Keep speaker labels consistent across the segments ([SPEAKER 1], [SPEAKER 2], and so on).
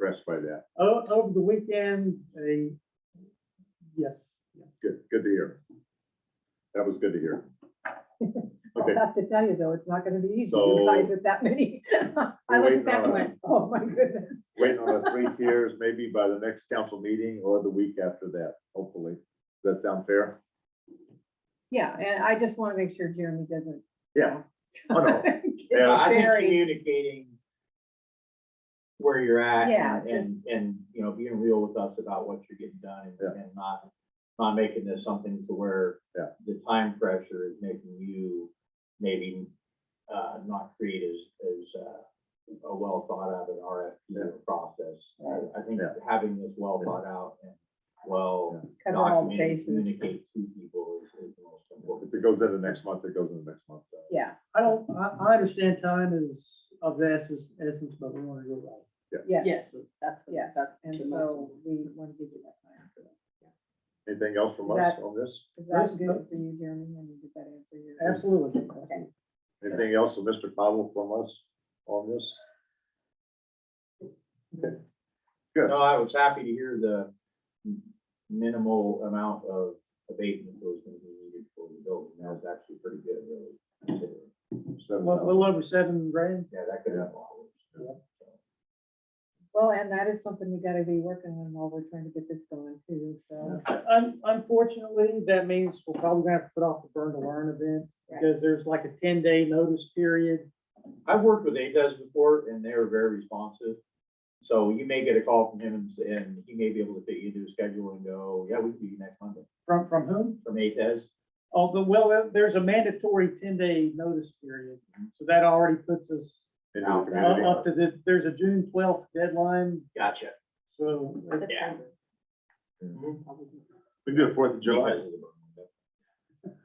[SPEAKER 1] impressed by that.
[SPEAKER 2] O- Oh, Over the weekend, a, yes,
[SPEAKER 1] Good, good to hear. That was good to hear.
[SPEAKER 3] I
[SPEAKER 1] Okay,
[SPEAKER 3] have to tell you though, it's not gonna be easy,
[SPEAKER 1] So-
[SPEAKER 3] you guys with that many.
[SPEAKER 4] I looked
[SPEAKER 1] waiting
[SPEAKER 4] at that
[SPEAKER 1] on-
[SPEAKER 4] one.
[SPEAKER 3] Oh, my goodness.
[SPEAKER 1] waiting on the three tiers, maybe by the next council meeting or the week after that, hopefully. Does that sound fair?
[SPEAKER 3] Yeah, and I just wanna make sure Jeremy doesn't.
[SPEAKER 1] Yeah. Oh, no.
[SPEAKER 4] Yeah, I think
[SPEAKER 3] Very.
[SPEAKER 4] communicating where you're at
[SPEAKER 3] Yeah,
[SPEAKER 4] and, and, and, you know, being real with us about what you're getting done and- and not, not making this something to where
[SPEAKER 1] Yeah.
[SPEAKER 4] the time pressure is making you maybe, uh, not create as, as, uh, a well thought out an
[SPEAKER 1] Yeah.
[SPEAKER 4] RFP process.
[SPEAKER 3] Right.
[SPEAKER 4] I think
[SPEAKER 1] Yeah.
[SPEAKER 4] having this well
[SPEAKER 1] Yeah.
[SPEAKER 4] thought out and well
[SPEAKER 3] Cover all the
[SPEAKER 4] documented,
[SPEAKER 3] bases.
[SPEAKER 4] communicate to people is, is the most important.
[SPEAKER 1] If it goes into next month, it goes into next month. so.
[SPEAKER 3] Yeah,
[SPEAKER 2] I don't, I, I understand time is of the essence, essence, but we want to go right.
[SPEAKER 3] yes,
[SPEAKER 5] That's, the-
[SPEAKER 3] yes,
[SPEAKER 5] that's
[SPEAKER 3] and
[SPEAKER 5] the most
[SPEAKER 3] so
[SPEAKER 5] important.
[SPEAKER 3] we wanna give you that time.
[SPEAKER 1] Anything else from us
[SPEAKER 3] That-
[SPEAKER 1] on this?
[SPEAKER 3] Is
[SPEAKER 2] Yes,
[SPEAKER 3] that good
[SPEAKER 2] no.
[SPEAKER 3] for you, Jeremy? I mean, does that answer your?
[SPEAKER 2] Absolutely.
[SPEAKER 3] Okay.
[SPEAKER 1] Anything else from Mr. Cottle from us on this? Good.
[SPEAKER 4] No, I was happy to hear the minimal amount of abatement that was gonna be needed for the building. That was actually pretty good, really. considering.
[SPEAKER 2] A
[SPEAKER 1] Seven
[SPEAKER 2] little-
[SPEAKER 1] thousand.
[SPEAKER 2] little over seven grand.
[SPEAKER 4] Yeah, that could have. been a lot worse.
[SPEAKER 3] Well, and that is something you gotta be working on while we're trying to get this going too, so.
[SPEAKER 2] Un- Unfortunately, that means we're probably gonna have to put off the burn to learn event because there's like a ten day notice period.
[SPEAKER 4] I've worked with ADES before and they were very responsive. So you may get a call from him and, s- and he may be able to fit you into his schedule and go, yeah, we can do you next Monday
[SPEAKER 2] From, from whom?
[SPEAKER 4] from ADES.
[SPEAKER 2] Although, well, there's a mandatory ten day notice period. So that already puts us
[SPEAKER 1] Into the
[SPEAKER 4] Out,
[SPEAKER 2] u-
[SPEAKER 1] community.
[SPEAKER 2] up to the, there's a June twelfth deadline,
[SPEAKER 4] Gotcha.
[SPEAKER 2] so. it-
[SPEAKER 4] Yeah.
[SPEAKER 1] Mm-hmm.
[SPEAKER 4] Mhm.
[SPEAKER 1] We can do the Fourth of
[SPEAKER 4] Because
[SPEAKER 1] July.
[SPEAKER 4] of the burn window.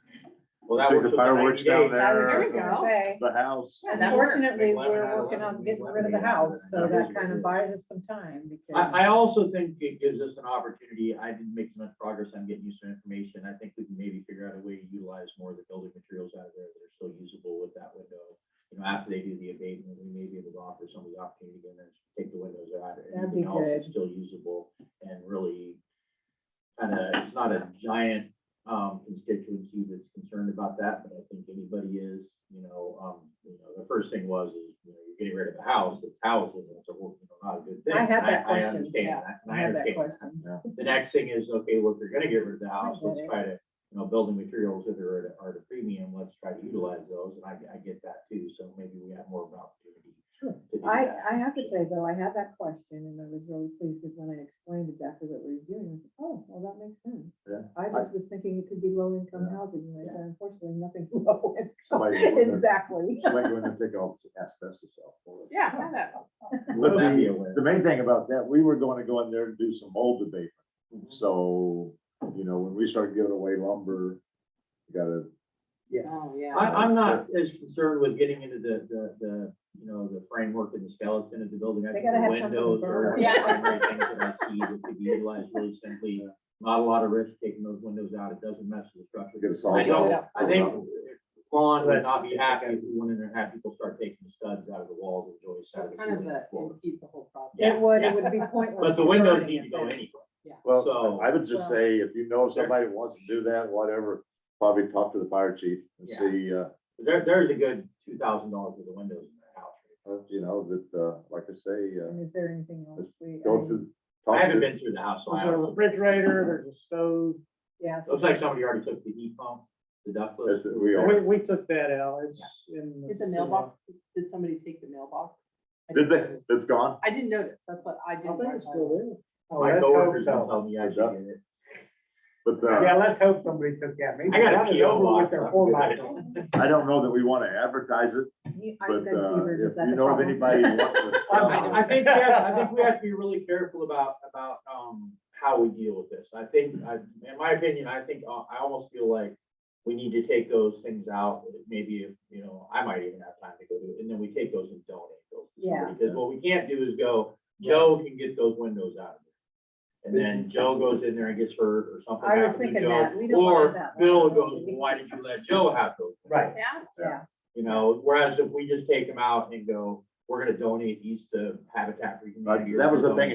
[SPEAKER 4] Well, that
[SPEAKER 1] Take
[SPEAKER 4] works.
[SPEAKER 1] the
[SPEAKER 4] with
[SPEAKER 1] fireworks
[SPEAKER 4] 90 days.
[SPEAKER 1] down there.
[SPEAKER 3] There
[SPEAKER 5] There
[SPEAKER 3] we
[SPEAKER 5] we
[SPEAKER 3] go.
[SPEAKER 5] go.
[SPEAKER 3] Say,
[SPEAKER 1] The house.
[SPEAKER 3] yeah,
[SPEAKER 5] that works.
[SPEAKER 3] Unfortunately,
[SPEAKER 4] Make lemon out
[SPEAKER 3] we're
[SPEAKER 4] of
[SPEAKER 3] working on
[SPEAKER 4] lemon,
[SPEAKER 3] getting
[SPEAKER 4] lemon
[SPEAKER 3] rid of the
[SPEAKER 4] made out of
[SPEAKER 3] house,
[SPEAKER 4] it.
[SPEAKER 3] so
[SPEAKER 1] Yeah,
[SPEAKER 3] that
[SPEAKER 1] we
[SPEAKER 3] kind
[SPEAKER 1] should.
[SPEAKER 3] of buys us some time because.
[SPEAKER 4] I, I also think it gives us an opportunity, I didn't make much progress, I'm getting you some information, I think we can maybe figure out a way to utilize more of the building materials out of there that are still usable with that window. You know, after they do the abatement, we may be able to offer some of the opportunity to then take the windows out, and
[SPEAKER 3] That'd be
[SPEAKER 4] everything else is
[SPEAKER 3] good.
[SPEAKER 4] still usable, and really kind of, it's not a giant, um, constituency that's concerned about that, but I think anybody is, you know, um, you know, the first thing was, is, you know, you're getting rid of a house, it's houses, and it's a, whole- you know, not a good thing.
[SPEAKER 3] I had
[SPEAKER 4] and
[SPEAKER 3] that question,
[SPEAKER 4] understand
[SPEAKER 3] yeah,
[SPEAKER 4] that, and
[SPEAKER 3] I have that
[SPEAKER 4] understand that.
[SPEAKER 3] question.
[SPEAKER 4] The next thing is, okay, well, if you're gonna get rid of the house,
[SPEAKER 3] get
[SPEAKER 4] let's
[SPEAKER 3] it.
[SPEAKER 4] try to, you know, building materials that are at, a- are at a premium, let's try to utilize those, and I, I get that too, so maybe we have more of an opportunity. to do
[SPEAKER 3] I,
[SPEAKER 4] that.
[SPEAKER 3] I have to say though, I had that question and I was really pleased because when I explained exactly what we were doing, I was like, oh, well, that makes sense.
[SPEAKER 1] Yeah.
[SPEAKER 3] I just was thinking it could be low income
[SPEAKER 1] Yeah.
[SPEAKER 3] housing, and I
[SPEAKER 4] Yeah.
[SPEAKER 3] said, unfortunately, nothing's low income.
[SPEAKER 1] Somebody go in there-
[SPEAKER 3] Exactly.
[SPEAKER 1] somebody go in there and take all the asbestos out. for us.
[SPEAKER 5] Oh, Yeah, I know.
[SPEAKER 1] But
[SPEAKER 4] Would that
[SPEAKER 1] the,
[SPEAKER 4] be a win?
[SPEAKER 1] the main thing about that, we were going to go in there and do some mold debate.
[SPEAKER 4] Mm-hmm.
[SPEAKER 1] So, you know, when we start giving away lumber, you gotta,
[SPEAKER 5] Oh, yeah.
[SPEAKER 4] I,
[SPEAKER 1] That's
[SPEAKER 4] I'm not as concerned with getting into the, the, the, you know, the framework and the skeleton of the building. I
[SPEAKER 3] They
[SPEAKER 4] think
[SPEAKER 3] gotta
[SPEAKER 4] the
[SPEAKER 3] have something to
[SPEAKER 4] windows are
[SPEAKER 3] burn.
[SPEAKER 4] the
[SPEAKER 5] Yeah.
[SPEAKER 4] primary things that I see that could be utilized really simply. Not a lot of risk taking those windows out. It doesn't mess with the structure.
[SPEAKER 1] get a
[SPEAKER 4] I
[SPEAKER 1] saw.
[SPEAKER 4] don't,
[SPEAKER 1] saw.
[SPEAKER 4] I think Lon would not be happy if we went in there and had people start taking the studs out of the walls and joists out of the
[SPEAKER 5] Kind of
[SPEAKER 4] ceiling and
[SPEAKER 5] a,
[SPEAKER 4] floor.
[SPEAKER 5] impede the whole process.
[SPEAKER 4] Yeah,
[SPEAKER 3] It would, it
[SPEAKER 4] yeah.
[SPEAKER 3] would be pointless.
[SPEAKER 4] But the
[SPEAKER 3] to
[SPEAKER 4] windows
[SPEAKER 3] burn
[SPEAKER 4] need
[SPEAKER 3] it
[SPEAKER 4] to go
[SPEAKER 3] then.
[SPEAKER 4] anyway.
[SPEAKER 1] Well,
[SPEAKER 4] So-
[SPEAKER 1] I would just say, if you know somebody that wants to do that, whatever, probably talk to the fire chief and
[SPEAKER 4] Yeah.
[SPEAKER 1] see, uh,
[SPEAKER 4] There, there's a good two thousand dollars for the windows in that house.
[SPEAKER 1] uh, you know, that, uh, like I say, uh,
[SPEAKER 3] And is there anything else we? I
[SPEAKER 1] go
[SPEAKER 3] mean,
[SPEAKER 1] to. talk
[SPEAKER 4] I
[SPEAKER 1] to-
[SPEAKER 4] haven't been through the house, so I
[SPEAKER 2] There's a
[SPEAKER 4] don't know.
[SPEAKER 2] refrigerator, there's a stove.
[SPEAKER 3] Yeah. so
[SPEAKER 4] Looks like somebody already took the heat pump, the ductless.
[SPEAKER 1] That's it, we
[SPEAKER 2] We,
[SPEAKER 1] are.
[SPEAKER 2] we took that out. It's in.
[SPEAKER 5] Did the mailbox, did somebody take the mailbox? I
[SPEAKER 1] Did
[SPEAKER 5] didn't
[SPEAKER 1] they,
[SPEAKER 5] notice.
[SPEAKER 1] that's gone?
[SPEAKER 5] I didn't notice, that's what I
[SPEAKER 2] I
[SPEAKER 5] did.
[SPEAKER 2] think it's still
[SPEAKER 4] My
[SPEAKER 1] Oh,
[SPEAKER 2] there. Oh,
[SPEAKER 4] coworkers don't tell me I should
[SPEAKER 1] Duck.
[SPEAKER 4] get it.
[SPEAKER 1] But, uh,
[SPEAKER 2] let's hope somebody took that.
[SPEAKER 4] I got a PO box. I'm good at it.
[SPEAKER 1] I don't know that we want to advertise it,
[SPEAKER 3] you- I
[SPEAKER 1] but,
[SPEAKER 3] think that's
[SPEAKER 1] uh,
[SPEAKER 3] fever,
[SPEAKER 1] if
[SPEAKER 3] is that
[SPEAKER 1] you
[SPEAKER 3] the
[SPEAKER 1] know of
[SPEAKER 3] problem?
[SPEAKER 1] anybody. who wants to sell
[SPEAKER 4] I I think, yeah, I think we have to be really careful about, about, um, how we deal with this. I think, I, in my opinion, I think, uh, I almost feel like we need to take those things out, maybe, if you know, I might even have time to go do it, and then we take those and donate those. to somebody. Because what we can't do is go, Joe can get those windows out of there. And then Joe goes in there and gets hurt or something
[SPEAKER 3] I was
[SPEAKER 4] happens to
[SPEAKER 3] thinking
[SPEAKER 4] Joe.
[SPEAKER 3] that. We don't want
[SPEAKER 4] Or
[SPEAKER 3] that.
[SPEAKER 4] Bill goes, "Well, why did you let Joe have those?
[SPEAKER 2] Right.
[SPEAKER 5] Yeah,
[SPEAKER 4] You know, whereas if we just take them out and go, we're gonna donate these to Habitat for Humanity.
[SPEAKER 1] That was the thing